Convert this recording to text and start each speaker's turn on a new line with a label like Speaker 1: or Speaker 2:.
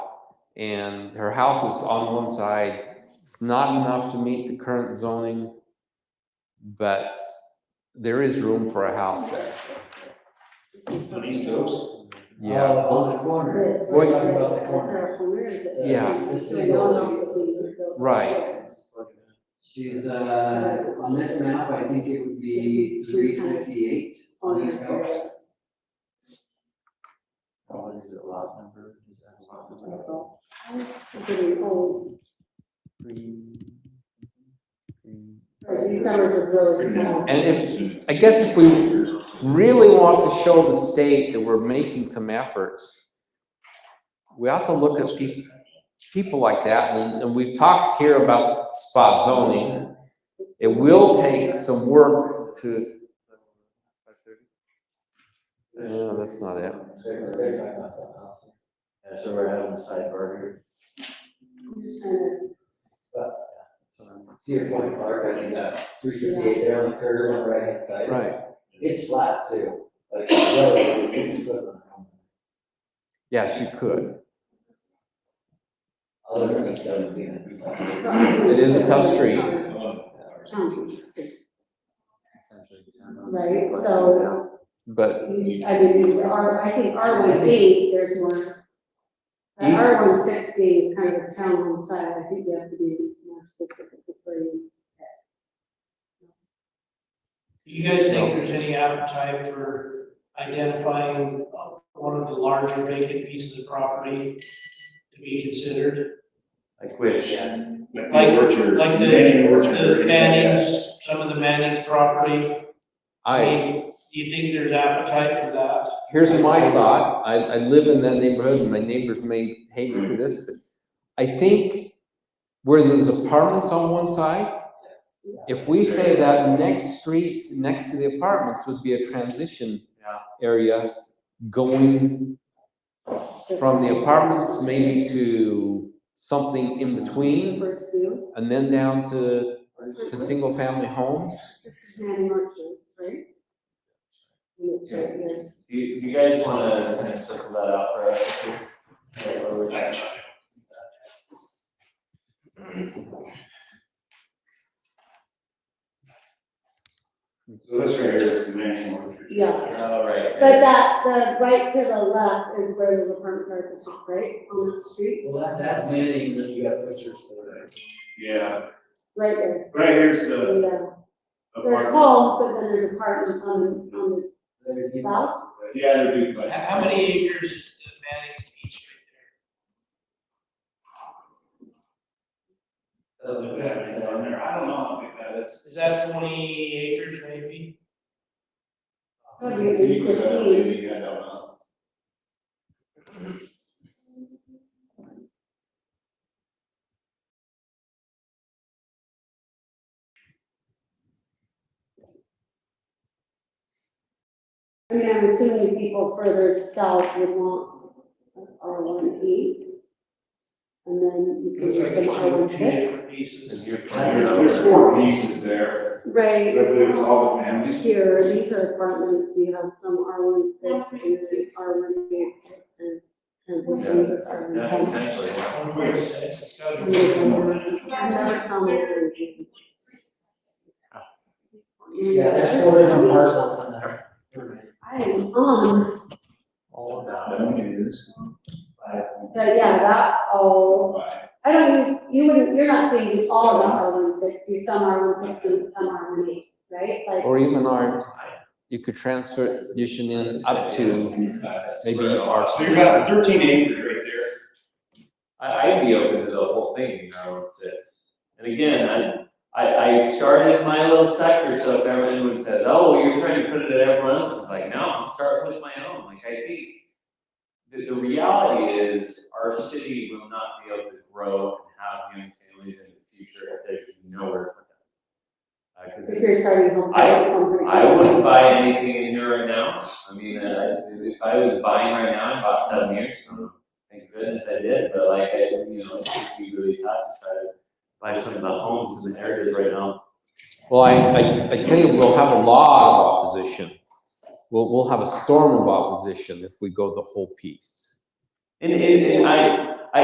Speaker 1: And her house is on one side. It's not enough to meet the current zoning, but there is room for a house there.
Speaker 2: On East Oaks?
Speaker 1: Yeah,
Speaker 3: Uh,
Speaker 1: well,
Speaker 3: On the corner.
Speaker 4: It's,
Speaker 1: Well,
Speaker 3: We're
Speaker 1: you-
Speaker 3: talking about the corner.
Speaker 1: Yeah.
Speaker 3: This
Speaker 4: So
Speaker 3: is
Speaker 4: no one
Speaker 3: what
Speaker 4: else
Speaker 3: we-
Speaker 4: is being built.
Speaker 1: Right.
Speaker 3: She's, uh, on this map, I think it would be three fifty-eight
Speaker 4: On
Speaker 3: on
Speaker 4: these
Speaker 3: East Oaks.
Speaker 4: areas.
Speaker 3: Oh, is it lot number? Is that lot
Speaker 4: I'm getting old, Right, these numbers are really small.
Speaker 1: And if- I guess if we- really want to show the state that we're making some efforts. We ought to look at people, people like that, and, and we've talked here about spot zoning. It will take some work to, no, that's not it.
Speaker 3: They're, they're talking about something else.
Speaker 5: Yeah, so we're having a sidebar here.
Speaker 4: I'm just trying to-
Speaker 3: To your point, Mark, I mean, uh, three fifty-eight there on the curve on the right hand side.
Speaker 1: Right,
Speaker 3: It's flat too, like, well, it's, you can put it on.
Speaker 1: yes, you could.
Speaker 3: I'll look at East Oaks being a pretty tough city.
Speaker 1: It is a tough street.
Speaker 4: Um, Right, so,
Speaker 1: But,
Speaker 4: you- I mean, the R, I think R one eight, there's one.
Speaker 1: Mm.
Speaker 4: R one six being kind of a town on side, I think you have to be more specific before you.
Speaker 6: Do you guys think there's any appetite for identifying uh, one of the larger vacant pieces of property to be considered?
Speaker 5: Like which?
Speaker 3: Yes.
Speaker 6: Like-
Speaker 2: orchard.
Speaker 6: Like the,
Speaker 2: Manning orchard.
Speaker 6: the Mannings, some of the Mannings property?
Speaker 1: I,
Speaker 6: mean, Do you think there's appetite for that?
Speaker 1: here's my thought, I, I live in that neighborhood, and my neighbors may hate me for this, but I think where there's apartments on one side, If we say that next street, next to the apartments would be a transition area going from the apartments maybe to something in between
Speaker 4: First view,
Speaker 1: and then down to, to single family homes.
Speaker 4: this is Manny Marshall, right? Yeah, it's right there.
Speaker 5: Do you, do you guys wanna kind of circle that out for us? here? Like, where we're-
Speaker 2: So this right here is the Manning orchard.
Speaker 4: Yeah.
Speaker 5: Oh, right.
Speaker 4: But that, the right to the left is where the apartments are, at the top, right, on that street,
Speaker 3: Well, that, that's Manning, then you got pictures there.
Speaker 2: Yeah,
Speaker 4: right there.
Speaker 2: right here's the
Speaker 4: So, yeah, there's
Speaker 2: apartment.
Speaker 4: home, but then there's apartments on, the- on
Speaker 3: They're deep.
Speaker 4: South?
Speaker 2: Yeah, they're doing
Speaker 6: How-
Speaker 2: much.
Speaker 6: How many acres is the Mannings piece
Speaker 3: Doesn't
Speaker 2: Yeah, it's
Speaker 3: matter.
Speaker 2: down there. I don't know how big that is.
Speaker 6: right there? Is that twenty acres maybe?
Speaker 4: Probably at least
Speaker 2: You could, uh,
Speaker 4: 15.
Speaker 2: maybe, I don't know.
Speaker 4: the, I mean, I'm assuming people further south would want R one eight. And then you can
Speaker 6: Looks like
Speaker 4: do some
Speaker 6: there's
Speaker 4: R
Speaker 6: two,
Speaker 4: one
Speaker 6: two
Speaker 4: six.
Speaker 6: different pieces.
Speaker 5: Is your
Speaker 2: There's,
Speaker 5: plan?
Speaker 2: there's four pieces there. I
Speaker 4: Right.
Speaker 2: believe it's all the families.
Speaker 4: Here, these are apartments, you have some R one six, R one eight, and, and this
Speaker 5: Yeah,
Speaker 4: one is R one
Speaker 5: Yeah,
Speaker 4: ten.
Speaker 5: potentially, yeah.
Speaker 6: One point six, it's gotta be.
Speaker 4: Yeah,
Speaker 3: Yeah, there's four different parcels on there.
Speaker 4: I am, um,
Speaker 5: All
Speaker 4: but yeah, that all,
Speaker 2: Five.
Speaker 4: I don't, you wouldn't, you're not saying you all got R one sixty, some R one sixty, and some R one eight, right? Like,
Speaker 1: Or even our, you could transfer addition in up to maybe our.
Speaker 2: So you got thirteen acres right there.
Speaker 5: I, I'd be open to the whole thing, you know, it's, it's, and again, I, I, I started my little sector, so if everyone says, oh, well, you're trying to put it at everyone else's, like, no, I'm starting with my own, like, I think the, the reality is, our city will not be able to grow and have young families in the future if there's nowhere to put them. Uh, cause
Speaker 4: if
Speaker 5: it's-
Speaker 4: you're starting home.
Speaker 5: I- I wouldn't buy anything in here right now. I mean, uh, if I was buying right now, I bought seven years from them. Thank goodness I did, but like, I, you know, it would be really tough to try to buy some of the homes in the areas right now.
Speaker 1: Well, I, I, I tell you, we'll have a lot of opposition. We'll, we'll have a storm of opposition if we go the whole piece.
Speaker 5: And, and, and I,